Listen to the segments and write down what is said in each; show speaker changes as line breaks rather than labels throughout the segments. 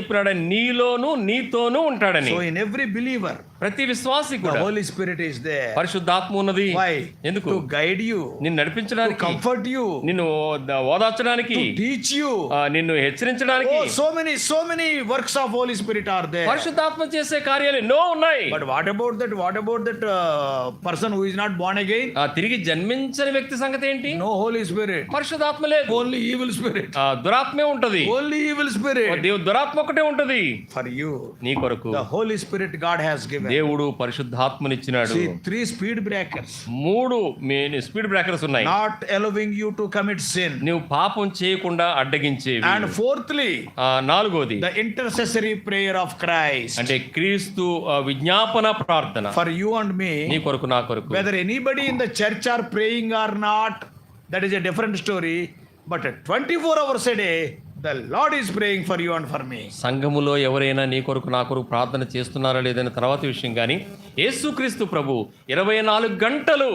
చెప్పినాడని నీలోను నీతోనూ ఉంటాడని
So in every believer,
ప్రతి విశ్వాసి
the
కూడా
Holy Spirit is there.
పరిశుద్ధాత్మ ఉన్నది
Why?
ఎందుకు
To guide you,
నిన్ను
to
నడిపించడానికి
comfort you,
నిన్ను ద- ఓదార్చడానికి
to teach you.
ఆ, నిన్ను హెచ్చరించడానికి
Oh, so many, so many works of Holy Spirit are there.
పరిశుద్ధాత్మ చేసే కార్యాలు ఎన్నో ఉన్నాయి
But what about that? What about that uh, person who is not born again?
ఆ, తిరిగి జన్మించని వ్యక్తి సంగతి ఏంటి
No Holy Spirit.
పరిశుద్ధాత్మ లేదు
Only evil spirit.
ఆ, దురాత్మే ఉంటది
Only evil
ఓ
spirit.
దేవు దురాత్మ ఒకటే ఉంటది
For you,
నీ కొరకు
the Holy Spirit God has given.
దేవుడు పరిశుద్ధాత్మనిచ్చినాడు
See, three speed breakers,
మూడు మీ- స్పీడ్ బ్రేకర్స్ ఉన్నాయి
not allowing you to commit sin.
నువ్వు పాపం చేయకుండా అడ్డగించేవి
And fourthly,
ఆ, నాలుగోది
the intercessory prayer of Christ.
అంటే క్రీస్తు ఆ, విజ్ఞాపన ప్రార్థన
for you and me
నీ కొరకు నా కొరకు
whether anybody in the church are praying or not that is a different story but 24 hours a day the lord is praying for you and for me
సంఘములో ఎవరైనా నీ కొరకు నా కొరకు ప్రార్థన చేస్తున్నారా లేదని తర్వాత విషయం కానీ యేసుక్రీస్తు ప్రభు ఇరవై నాలుగు గంటలు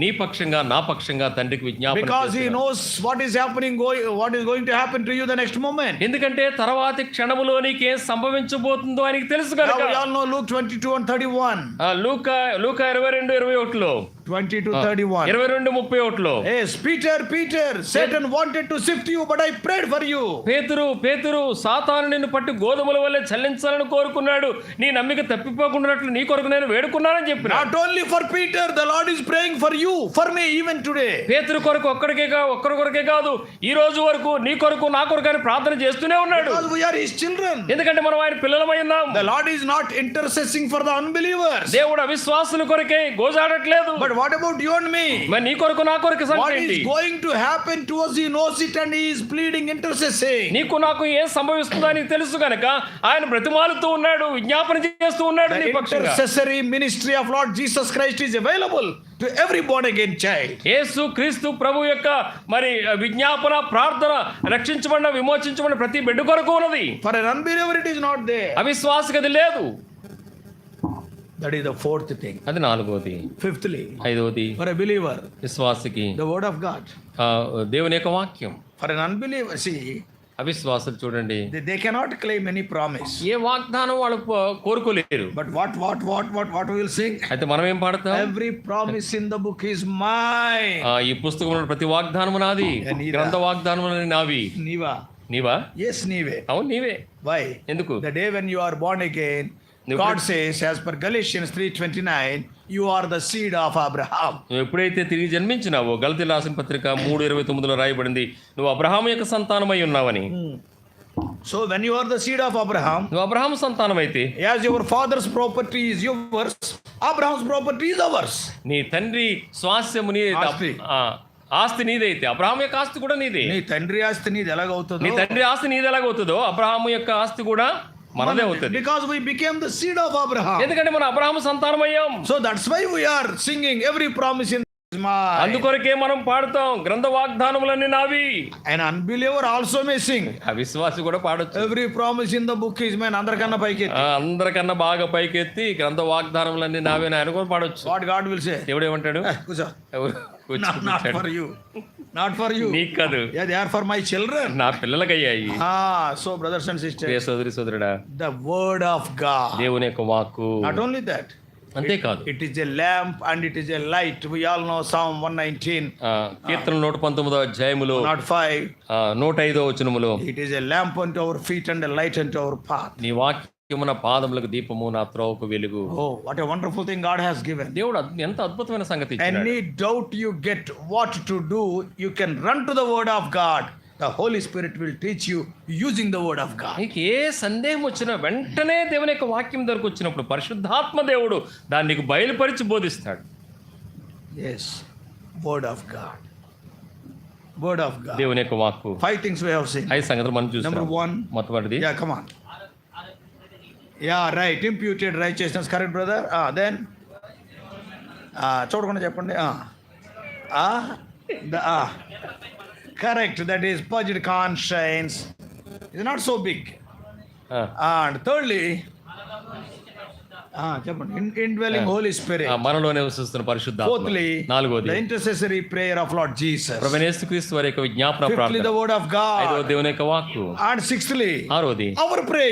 నీ పక్షంగా నా పక్షంగా తండ్రికి విజ్ఞాపన
because he
చేస్తున్నాడు.
knows what is happening going what is going to happen to you the next moment
ఎందుకంటే తర్వాతి క్షణములో నీకేం సంభవించబోతుందో ఆయనకి తెలుసు
now
కనుక
we all know luke 22 and 31
ఆ, లూక లూక ఇరవై రెండు ఇరవై ఒకటిలో
22 31
ఇరవై రెండు ముప్పై ఒకటిలో
yes peter peter satan wanted to sift you but i prayed for you
పేతురు పేతురు సాతాను నిన్ను పట్టి గోధుమల వల్లే చల్లించాలని కోరుకున్నాడు నీ నమ్మిక తప్పిపోకుండాట్లు నీ కొరకు నేను వేడుకున్నానని చెప్పిన
not only for peter the lord is praying for you for me even today
పేతురు కొరకు ఒక్కడికే కా ఒక్కరి కొరకే కాదు ఈ రోజు వరకు నీ కొరకు నా కొరకు అని ప్రార్థన చేస్తూనే ఉన్నాడు
because we are his children
ఎందుకంటే మనం ఆయన పిల్లలమై ఉన్నాం
The Lord is not intercessing for the unbelievers.
దేవుడు అవిశ్వాసుల కొరకే గోజాడట్లేదు
But what about you and me?
మరి నీ కొరకు నా కొరకు
What
సంగతి
is
ఏంటి?
going to happen to us? He knows it and He is pleading, intercessing.
నీకు నాకు ఏం సంభవిస్తుందో నీకు తెలుసు కనుక ఆయన బ్రతిమాలుతూ ఉన్నాడు విజ్ఞాపన చేస్తూ ఉన్నాడు నీ
The
పక్షంగా
intercessory ministry of Lord Jesus Christ is available to every born again child.
యేసు క్రీస్తు ప్రభు యొక్క మరి విజ్ఞాపన ప్రార్థన రక్షించబడిన విమోచించబడిన ప్రతి బిడ్డ కొరకు ఉన్నది
For an unbeliever, it is not there.
అవిశ్వాసకి అది లేదు
That is the fourth thing.
అది నాలుగోది
Fifthly,
ఐదోది
for a believer,
విశ్వాసకి
the Word of God.
ఆ, దేవుని యొక్క వాక్యం
For an unbeliever, see,
అవిశ్వాసులు చూడండి
they, they cannot claim any promise.
ఏ వాగ్దానం వాళ్ళు కో- కోరుకోలేరు
But what, what, what, what, what we will sing?
అయితే మనం ఏం పాడతాం
Every promise in the book is mine.
ఆ, ఈ పుస్తకంలో ప్రతి వాగ్దానం నాది గ్రంథ వాగ్దానం నావి
Niva.
నీవా
Yes, Nive.
అవును నీవే
Why?
ఎందుకు
The day when you are born again,
Nive.
God says, as per Galatians 3.29, you are the seed of Abraham.
నువ్వు ఎప్పుడైతే తిరిగి జన్మించినావో గలతి రాసిన పత్రిక మూడు ఇరవై తొమ్మిదిలో రాయబడింది నువ్వు అబ్రహాం యొక్క సంతానమై ఉన్నావని
So when you are the seed of Abraham,
నువ్వు అబ్రహాం సంతానమైతే
as your father's property is yours, Abraham's property is ours.
నీ తండ్రి స్వాస్యము నీ
ఆస్తి.
ఆ, ఆస్తి నీదైతే అబ్రహాం యొక్క ఆస్తి కూడా నీదే
నీ తండ్రి ఆస్తి నీది ఎలాగవుతుందో
నీ తండ్రి ఆస్తి నీది ఎలాగవుతుందో అబ్రహాం యొక్క ఆస్తి కూడా మనదే అవుతుంది
because we became the seed of Abraham.
ఎందుకంటే మనం అబ్రహాం సంతానమయ్యాం
So that's why we are singing every promise in my
అందుకొరకే మనం పాడతాం గ్రంథ వాగ్దానములన్నీ నావి
an unbeliever also may sing.
అవిశ్వాసి కూడా పాడొచ్చు
Every promise in the book is mine. అందరికన్నా పైకి
ఆ, అందరికన్నా బాగా పైకెత్తి గ్రంథ వాగ్దానములన్నీ నావే అని ఆయన కూడా పాడొచ్చు
వాట్ గాడ్ విల్ సే
దేవుడు ఏమంటాడు
కూర్చో
ఎవరు కూర్చొని
నాట్
కూర్చాడు.
For you not for you
నీకు కాదు
yeah they are for my children
నా పిల్లలకయ్యాయి
సో బ్రదర్స్ అండ్ సిస్టర్
ప్రియ సోదరి సోదరుడా
ద వర్డ్ ఆఫ్ గాడ్
దేవుని యొక్క వాక్కు
నాట్ ఓన్లీ దట్
అంతేకాదు
it is a lamp and it is a light we all know psalm one nineteen
ఆ, కీర్తన నూట పంతొమ్మిదో అధ్యాయములో
నాట్ ఫైవ్
ఆ, నూట ఐదో వచనములో
it is a lamp and our feet and light and our path
నీ వాక్యము నా పాదములకు దీపము నా త్రోవకు వెలుగు
oh what a wonderful thing God has given
దేవుడు అద్- ఎంత అద్భుతమైన సంగతి ఇచ్చినాడు.
Any doubt you get what to do you can run to the word of God the Holy Spirit will teach you using the word of God
నీకు ఏ సందేహం వచ్చినా వెంటనే దేవుని యొక్క వాక్యం దగ్గరకు వచ్చినప్పుడు పరిశుద్ధాత్మ దేవుడు దాన్ని నీకు బయలుపరిచి బోధిస్తాడు
Yes, word of God. Word of God.
దేవుని యొక్క వాక్కు
Five things we have seen.
ఐదు సంగతులు మనం
Number
చూస్తాం
one.
మొట్టమొదటిది
Yeah, come on. Yeah, right. Imputed righteousness, correct, brother? Ah, then. Ah, ah. చూడకుండా చెప్పండి correct that is purged conscience ఇది నాట్ సో బిగ్
ఆ,
అండ్ థర్డ్లీ ah, చెప్పండి ఇన్ ఇన్ డ్వెలింగ్ హోలీ
ఆ,
స్పిరిట్
మనలో నివసిస్తున్న పరిశుద్ధ
ఫోర్త్లీ
Ah, నాలుగోది
the intercessory prayer of Lord Jesus
ప్రవణేస్తు క్రీస్తు వారి యొక్క విజ్ఞాపన
ఫిఫ్త్లీ
ప్రార్థన
ద వర్డ్ ఆఫ్ గాడ్
ఐదవ దేవుని యొక్క వాక్కు
And sixthly,
ఆరోది
our prayer.